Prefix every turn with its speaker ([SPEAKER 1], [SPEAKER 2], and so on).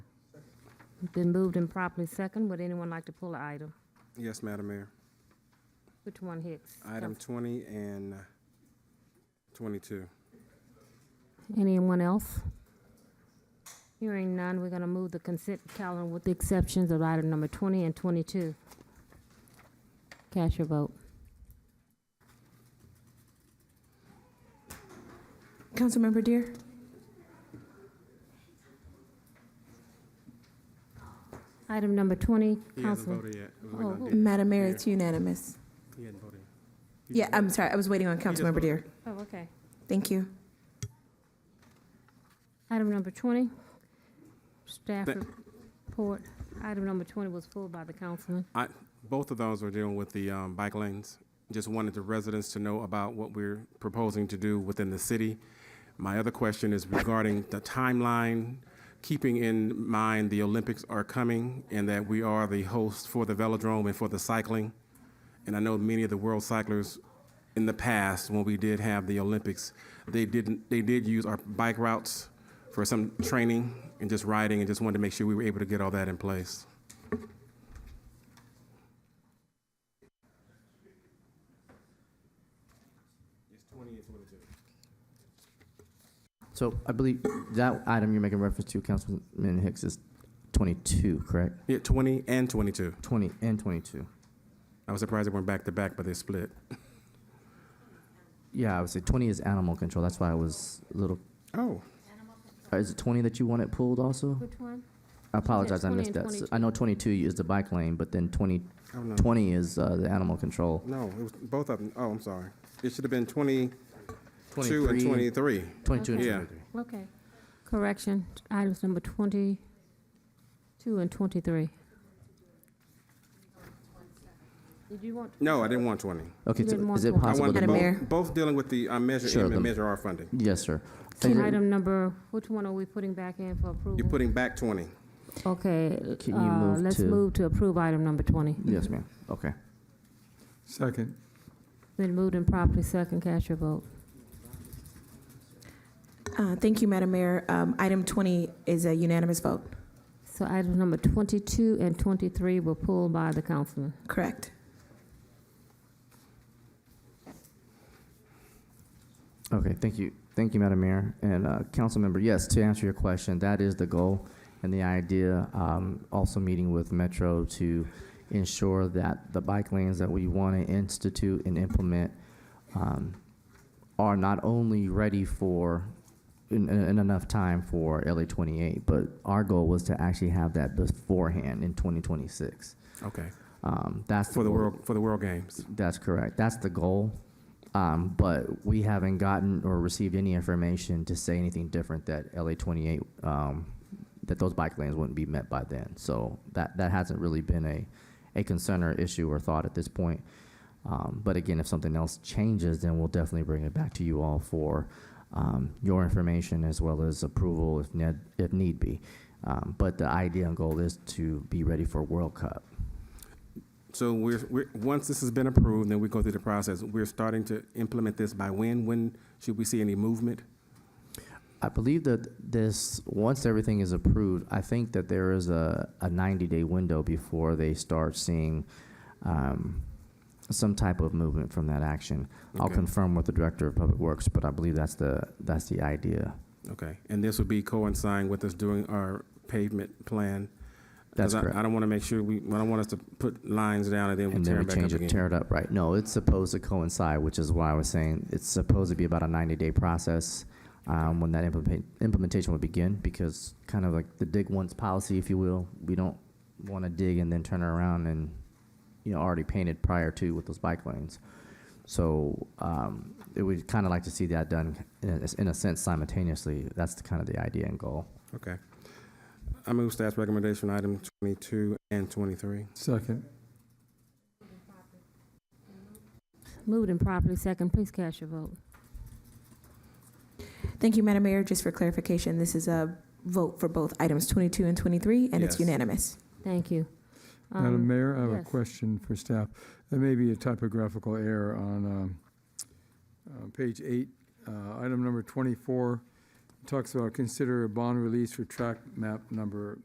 [SPEAKER 1] Been moved and properly second. Would anyone like to pull an item?
[SPEAKER 2] Yes, Madam Mayor.
[SPEAKER 1] Which one, Hicks?
[SPEAKER 2] Item twenty and twenty-two.
[SPEAKER 1] Anyone else? Hearing none, we're gonna move the consent calendar with the exceptions of item number twenty and twenty-two. Cast your vote.
[SPEAKER 3] Councilmember Dear?
[SPEAKER 1] Item number twenty,
[SPEAKER 2] He hasn't
[SPEAKER 1] Councilman.
[SPEAKER 2] voted yet. We're
[SPEAKER 1] Oh,
[SPEAKER 2] waiting on
[SPEAKER 1] who-
[SPEAKER 2] Dick.
[SPEAKER 3] Madam Mayor, it's unanimous.
[SPEAKER 2] He hasn't voted. He
[SPEAKER 3] Yeah,
[SPEAKER 2] just-
[SPEAKER 3] I'm sorry, I was waiting on
[SPEAKER 2] just
[SPEAKER 3] Councilmember
[SPEAKER 2] voted.
[SPEAKER 3] Dear.
[SPEAKER 1] Oh, okay.
[SPEAKER 3] Thank you.
[SPEAKER 1] Item number twenty, staff
[SPEAKER 2] Th-
[SPEAKER 1] report. Item number twenty was pulled by the councilman.
[SPEAKER 2] I, both of those are dealing with the, um, bike lanes. Just wanted the residents to know about what we're proposing to do within the city. My other question is regarding the timeline, keeping in mind the Olympics are coming and that we are the host for the velodrome and for the cycling. And I know many of the world cyclers in the past, when we did have the Olympics, they didn't, they did use our bike routes for some training and just riding and just wanted to make sure we were able to get all that in place.
[SPEAKER 4] So I believe that item you're making reference to, Councilman Hicks, is 22, correct?
[SPEAKER 2] Yeah, 20 and 22.
[SPEAKER 4] 20 and 22.
[SPEAKER 2] I was surprised they weren't back to back, but they split.
[SPEAKER 4] Yeah, I would say 20 is animal control. That's why I was a little.
[SPEAKER 2] Oh.
[SPEAKER 4] uh, Is it 20 that you want it pulled also?
[SPEAKER 1] Which one?
[SPEAKER 4] I apologize, I
[SPEAKER 1] 20
[SPEAKER 4] missed
[SPEAKER 1] and
[SPEAKER 4] that. So I know 22 is the bike lane, but then 20,
[SPEAKER 2] I don't know.
[SPEAKER 4] 20 is uh, the animal control.
[SPEAKER 2] No, it was both of them. Oh, I'm sorry. It should have been 22 and
[SPEAKER 4] 23.
[SPEAKER 2] 23.
[SPEAKER 4] 22 and
[SPEAKER 2] Okay. Yeah.
[SPEAKER 4] 23.
[SPEAKER 1] Okay. Correction, items number twenty-two and twenty-three. Did you want?
[SPEAKER 2] No, I didn't want 20.
[SPEAKER 4] Okay,
[SPEAKER 1] You didn't
[SPEAKER 4] so
[SPEAKER 1] want
[SPEAKER 4] is it
[SPEAKER 1] to- I
[SPEAKER 2] I
[SPEAKER 4] possible
[SPEAKER 2] wanted
[SPEAKER 4] to?
[SPEAKER 3] Madam
[SPEAKER 2] both,
[SPEAKER 3] Mayor?
[SPEAKER 2] both dealing with the uh, Measure
[SPEAKER 4] Sure,
[SPEAKER 2] M
[SPEAKER 4] the-
[SPEAKER 2] and Measure R funding.
[SPEAKER 4] Yes, sir. Is it-
[SPEAKER 1] Item number, which one are we putting back in for
[SPEAKER 2] You're
[SPEAKER 1] approval?
[SPEAKER 2] putting back 20.
[SPEAKER 1] Okay,
[SPEAKER 4] Can you
[SPEAKER 1] uh,
[SPEAKER 4] move
[SPEAKER 1] let's
[SPEAKER 4] to-
[SPEAKER 1] move to approve item number twenty.
[SPEAKER 4] Yes, ma'am. Okay.
[SPEAKER 5] Second.
[SPEAKER 1] Been moved and properly second, cast your vote.
[SPEAKER 3] Uh, Thank you, Madam Mayor. Um, Item 20 is a unanimous vote.
[SPEAKER 1] So items number twenty-two and twenty-three were pulled by the councilman.
[SPEAKER 3] Correct.
[SPEAKER 4] Okay, thank you. Thank you, Madam Mayor and uh, council member. Yes, to answer your question, that is the goal and the idea. Um, also meeting with Metro to ensure that the bike lanes that we want to institute and implement um, are not only ready for in, in in enough time for LA 28, but our goal was to actually have that beforehand in 2026.
[SPEAKER 2] Okay.
[SPEAKER 4] Um, that's
[SPEAKER 2] For the
[SPEAKER 4] goal.
[SPEAKER 2] World, for the World Games.
[SPEAKER 4] That's correct. That's the goal. Um, but we haven't gotten or received any information to say anything different that LA 28, um, that those bike lanes wouldn't be met by then. So that, that hasn't really been a, a concern or issue or thought at this point. Um, but again, if something else changes, then we'll definitely bring it back to you all for um, your information as well as approval if, ned, if need be. Um, but the idea and goal is to be ready for World Cup.
[SPEAKER 2] So we're, we're, once this has been approved, then we go through the process. We're starting to implement this by when? When should we see any movement?
[SPEAKER 4] I believe that this, once everything is approved, I think that there is a, a 90-day window before they start seeing um, some type of movement from that action. I'll
[SPEAKER 2] Okay.
[SPEAKER 4] confirm with the Director of Public Works, but I believe that's the, that's the idea.
[SPEAKER 2] Okay. And this would be coinciding with us doing our pavement plan? 'Cause
[SPEAKER 4] That's
[SPEAKER 2] I-
[SPEAKER 4] correct.
[SPEAKER 2] I don't want to make sure we, I don't want us to put lines down and then we
[SPEAKER 4] And then
[SPEAKER 2] tear
[SPEAKER 4] we
[SPEAKER 2] it back up
[SPEAKER 4] change it,
[SPEAKER 2] again.
[SPEAKER 4] tear it up, right? No, it's supposed to coincide, which is why I was saying it's supposed to be about a 90-day process um, when that implement- implementation would begin, because kind of like the dig once policy, if you will, we don't want to dig and then turn around and, you know, already painted prior to with those bike lanes. So um, it would kind of like to see that done, in a- in a sense, simultaneously. That's the kind of the idea and goal.
[SPEAKER 2] Okay. I move staff's recommendation, item 22 and 23.
[SPEAKER 5] Second.
[SPEAKER 1] Moved and properly second, please cast your vote.
[SPEAKER 3] Thank you, Madam Mayor. Just for clarification, this is a vote for both items 22 and 23, and it's
[SPEAKER 2] Yes.
[SPEAKER 3] unanimous.
[SPEAKER 1] Thank you.
[SPEAKER 5] Madam
[SPEAKER 1] Um,
[SPEAKER 5] Mayor, I have a
[SPEAKER 1] yes.
[SPEAKER 5] question for staff. There may be a typographical error on um, uh, page eight, uh, item number 24. Talks about consider a bond release for track map number